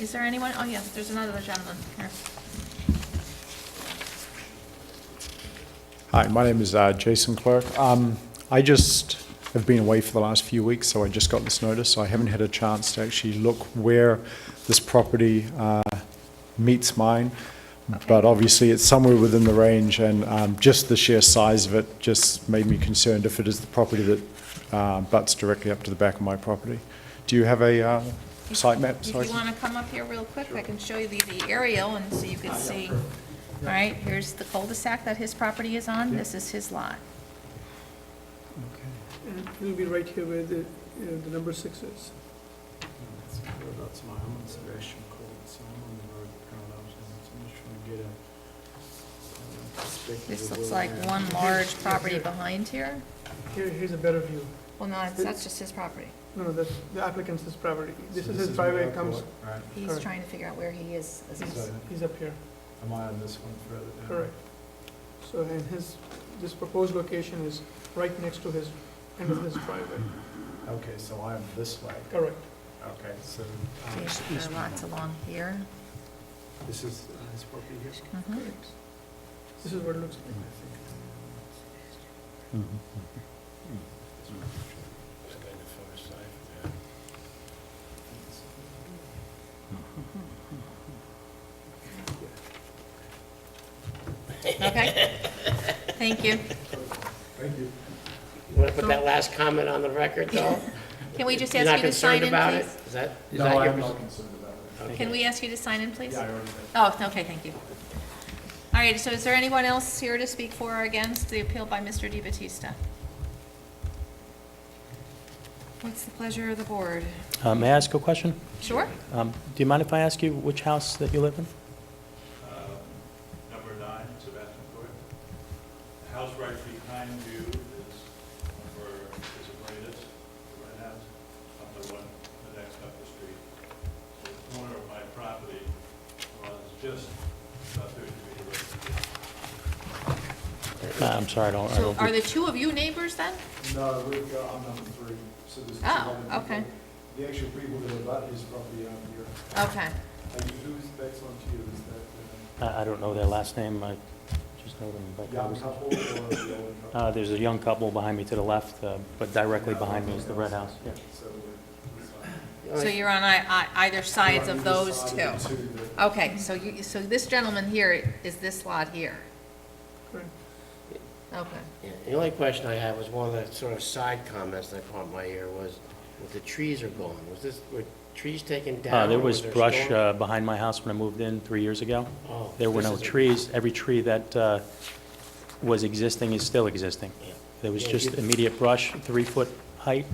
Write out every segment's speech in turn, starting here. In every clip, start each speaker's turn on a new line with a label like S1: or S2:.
S1: Is there anyone, oh yes, there's another gentleman here.
S2: Hi, my name is uh, Jason Clerk. Um, I just have been away for the last few weeks, so I just got this notice, so I haven't had a chance to actually look where this property uh, meets mine. But obviously, it's somewhere within the range, and um, just the sheer size of it just made me concerned if it is the property that uh, butts directly up to the back of my property. Do you have a uh, site map?
S1: If
S2: Sorry.
S1: you want to come up here real quick, I can show you the the aerial and so you can see. All right, here's the cul-de-sac that his property is on. This is his lot.
S3: And it'll be right here where the, you know, the number six is.
S4: That's my, I'm on Sebastian Court, so I'm on the road parallel, so I'm just trying to get a uh, perspective.
S1: This
S4: of
S1: looks
S4: where
S1: like
S4: we're at.
S1: one large property behind here.
S3: Here, here's a better view.
S1: Well, no, that's- that's just his property.
S3: No, no, that's the applicant's his property.
S4: So
S3: This is his
S4: where
S3: driveway
S4: I
S3: comes,
S4: thought, Right,
S1: He's
S3: Correct.
S1: trying to figure out where he is. as he's-
S4: so
S3: he's up here,
S4: am I on this one further down?
S3: correct. So, and his, this proposed location is right next to his, end of his driveway,
S4: Mm-hmm. Okay, so I am this way,
S3: correct.
S4: okay, so. um,
S1: These
S4: east-
S1: are lots along here.
S4: This is, uh, this property here?
S1: Mhm.
S3: This is what it looks like.
S4: uh,
S1: Okay. Thank you.
S4: Thank you.
S5: You want to put that last comment on the record, though?
S1: Can we just
S5: You're
S1: ask
S5: not
S1: you to sign
S5: concerned
S1: in,
S5: about it?
S1: please?
S5: Is that, is
S4: No,
S5: that your...
S4: I'm not concerned about it.
S5: okay.
S1: Can we ask you to sign in, please?
S4: Yeah, I already did.
S1: Oh, okay, thank you. All right, so is there anyone else here to speak for or against the appeal by Mr. Di Battista? What's the pleasure of the board?
S6: Uh, May I ask a question?
S1: Sure?
S6: Um, Do you mind if I ask you which house that you live in?
S7: Um, Number nine, Sebastian Court. The house right behind you is number, is the greatest, the red house, on the one, the next up the street. The corner of my property was just about thirty feet away.
S6: Uh, I'm sorry, I don't, I
S1: So
S6: don't-
S1: are the two of you neighbors then?
S4: No, we've got, I'm number three, so there's. two
S1: Oh,
S4: other
S1: okay.
S4: people. The actual people that are about his property out here,
S1: Okay,
S3: Uh,
S4: and who's, that's on to you, is that
S6: I I don't know their last name, I just know them by
S4: the young
S6: conversation.
S4: couple or the older couple?
S6: Uh, There's a young couple behind me to the left, uh, but directly behind me is the red house. Yeah.
S4: So uh, we're- it's fine.
S1: so you're on ei- ei- either sides of
S4: We're on either
S1: those
S4: side
S1: two?
S4: of the two that-
S1: Okay, so you, so this gentleman here is this lot here?
S3: Correct.
S1: Okay.
S5: Yeah, The only question I had was one of the sort of side comments that caught my ear was, with the trees are gone, was this, were trees taken down?
S6: Uh, There
S5: or
S6: was
S5: there
S6: brush
S5: storm-
S6: uh, behind my house when I moved in three years ago.
S5: Oh,
S6: There were
S5: this
S6: no
S5: is a-
S6: trees. Every tree that uh, was existing is still existing.
S5: Yeah.
S6: There was
S5: Yeah,
S6: just
S5: you-
S6: immediate brush, three-foot height,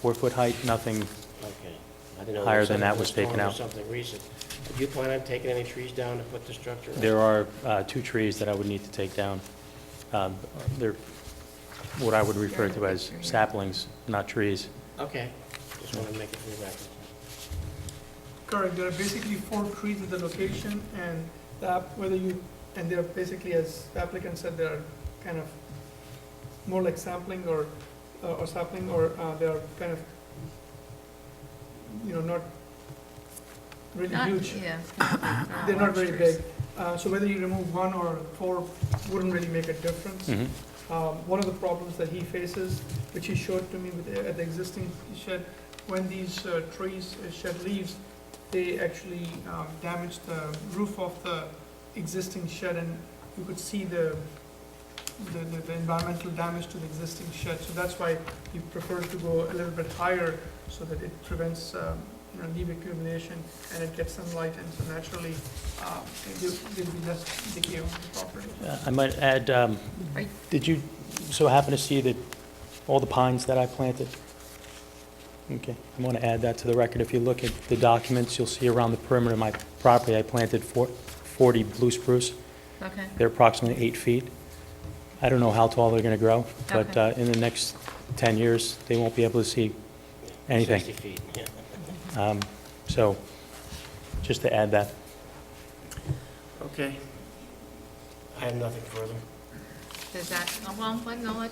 S6: four-foot height, nothing.
S5: Okay. I didn't know
S6: Higher
S5: there
S6: than that was
S5: something
S6: taken
S5: storm or
S6: out.
S5: Something recent. Do you plan on taking any trees down to put the structure? up?
S6: There are uh, two trees that I would need to take down. Um, They're what I would refer to as saplings, not trees.
S5: Okay, just want to make it for the record.
S3: Correct, there are basically four trees in the location, and the app, whether you, and they're basically, as the applicant said, they're kind of more like sampling or, or sapling, or uh, they are kind of, you know, not really
S1: Not,
S3: huge.
S1: yeah.
S3: They're not very
S1: large trees.
S3: big. Uh, So whether you remove one or four wouldn't really make a difference.
S6: Mhm.
S3: Um, One of the problems that he faces, which he showed to me with, the- at the existing shed, when these uh, trees uh, shed leaves, they actually um, damage the roof of the existing shed, and you could see the, the- the the environmental damage to the existing shed. So that's why he prefers to go a little bit higher, so that it prevents, um, you know, leaf accumulation, and it gets sunlight, and so naturally, um, there- there'll be less decay on the property.
S6: Uh, I might add, um,
S1: Are-
S6: did you so happen to see that, all the pines that I planted? Okay, I want to add that to the record. If you look at the documents, you'll see around the perimeter of my property, I planted four- 40 blue spruce.
S1: Okay,
S6: They're approximately eight feet. I don't know how tall they're going to grow, but
S1: Okay.
S6: uh, in the next 10 years, they won't be able to see anything.
S5: 60 feet, yeah.
S6: Um, So, just to add that.
S5: Okay. I have nothing further.
S1: does that, well, no,